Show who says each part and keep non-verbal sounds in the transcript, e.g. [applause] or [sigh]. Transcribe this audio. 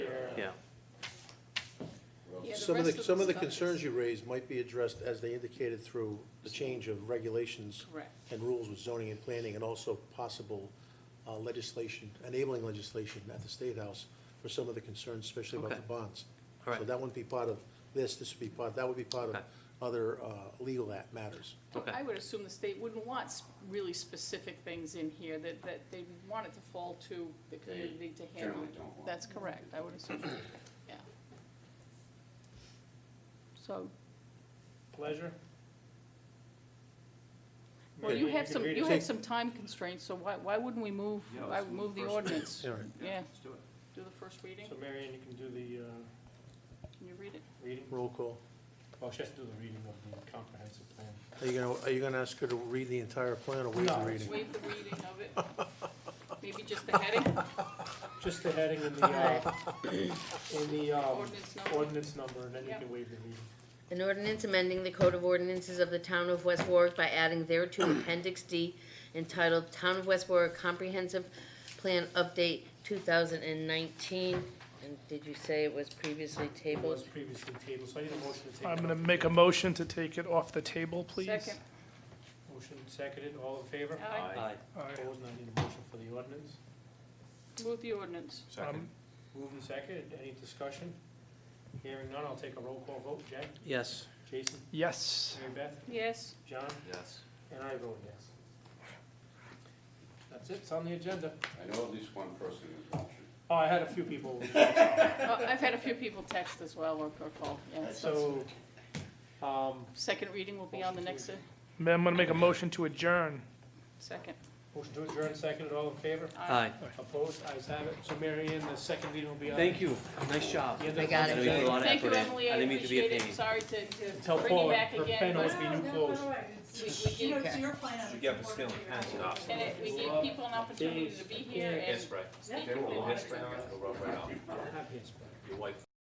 Speaker 1: yeah.
Speaker 2: Yeah, the
Speaker 3: Some of
Speaker 2: rest
Speaker 3: the, some of the
Speaker 2: stuff is-
Speaker 3: concerns you raised might be addressed, as they indicated, through the change of regulations
Speaker 2: Correct.
Speaker 3: and rules with zoning and planning, and also possible uh, legislation, enabling legislation at the State House for some of the concerns, especially about
Speaker 1: Okay.
Speaker 3: the bonds.
Speaker 1: All right.
Speaker 3: So that wouldn't be part of this, this would be part, that would be part of
Speaker 1: Okay.
Speaker 3: other uh, legal act matters.
Speaker 1: Okay.
Speaker 2: I would assume the state wouldn't want s- really specific things in here that, that they want it to fall to the community to handle.
Speaker 4: generally don't want
Speaker 2: That's correct, I would
Speaker 4: [clears throat]
Speaker 2: assume, yeah. So,
Speaker 5: Pleasure?
Speaker 2: well,
Speaker 3: Okay.
Speaker 2: you have some, you have
Speaker 3: Take-
Speaker 2: some time constraints, so why, why wouldn't we move,
Speaker 4: Yeah,
Speaker 2: I
Speaker 4: let's
Speaker 2: would
Speaker 4: move
Speaker 2: move the
Speaker 4: first.
Speaker 2: ordinance?
Speaker 3: All right.
Speaker 2: Yeah,
Speaker 4: Let's do it.
Speaker 2: do the first reading,
Speaker 5: So Marion, you can do the uh,
Speaker 2: can you read it?
Speaker 5: reading?
Speaker 3: Roll call.
Speaker 5: Well, she has to do the reading of the comprehensive plan.
Speaker 3: Are you gonna, are you gonna ask her to read the entire plan or waive the
Speaker 5: No.
Speaker 3: reading?
Speaker 2: Waive the reading of it, maybe just the heading,
Speaker 5: Just the heading and the,
Speaker 6: [laughs]
Speaker 5: uh, and the um,
Speaker 2: ordinance number,
Speaker 5: ordinance number, and then you
Speaker 2: Yeah.
Speaker 5: can waive the reading.
Speaker 7: An ordinance amending the Code of Ordinances of the Town of West Warwick by adding thereto Appendix D entitled Town of West Warwick Comprehensive Plan Update two thousand and nineteen. And did you say it was previously
Speaker 5: It was
Speaker 7: tabled?
Speaker 5: previously tabled, so I need a motion to take.
Speaker 6: I'm
Speaker 5: it
Speaker 6: gonna
Speaker 5: off.
Speaker 6: make a motion to take it off the table, please.
Speaker 2: second,
Speaker 5: Motion seconded, all in favor?
Speaker 2: aye,
Speaker 1: Aye.
Speaker 6: Aye.
Speaker 5: Opposed, and I need a motion for the ordinance.
Speaker 2: move the ordinance,
Speaker 6: Um,
Speaker 5: Moved and seconded, any discussion? Hearing none, I'll take a roll call vote. Jen?
Speaker 1: Yes.
Speaker 5: Jason?
Speaker 6: Yes,
Speaker 5: Mary Beth?
Speaker 2: yes,
Speaker 5: John?
Speaker 1: Yes.
Speaker 5: And I vote yes. That's it, it's on the agenda.
Speaker 4: I know at least one person is watching.
Speaker 5: Oh, I had a
Speaker 4: [laughs]
Speaker 5: few people.
Speaker 2: Uh, I've had a few people text as well or, or call, yeah, so.
Speaker 5: So, um,
Speaker 2: Second reading will be on the next, uh,
Speaker 6: Ma'am, I'm gonna make a motion to adjourn.
Speaker 2: second.
Speaker 5: motion to adjourn, seconded, all in favor?
Speaker 1: Aye.
Speaker 5: Opposed, ayes have it. So Mary Ann, the second reading will be on.
Speaker 1: Thank you. Nice job.
Speaker 5: the end of
Speaker 7: I got
Speaker 1: I
Speaker 7: it.
Speaker 1: know
Speaker 5: the
Speaker 1: you put a
Speaker 5: agenda.
Speaker 1: lot of
Speaker 2: Thank you,
Speaker 1: effort in.
Speaker 2: Emily, I
Speaker 1: didn't mean to be a
Speaker 2: appreciate it,
Speaker 1: pain.
Speaker 2: I'm sorry to,
Speaker 5: Tell
Speaker 2: to bring
Speaker 5: Paul,
Speaker 2: you back
Speaker 5: her
Speaker 2: again,
Speaker 5: pen
Speaker 2: but
Speaker 5: must be new closed.
Speaker 2: we, we
Speaker 8: You know,
Speaker 2: did,
Speaker 8: it's your plan. You
Speaker 1: get this feeling, pass it off.
Speaker 2: and it, we gave people an opportunity to be here and
Speaker 1: right.
Speaker 2: speak if they wanted to.
Speaker 1: It'll rub right off.
Speaker 5: Happy as well.
Speaker 1: Your wife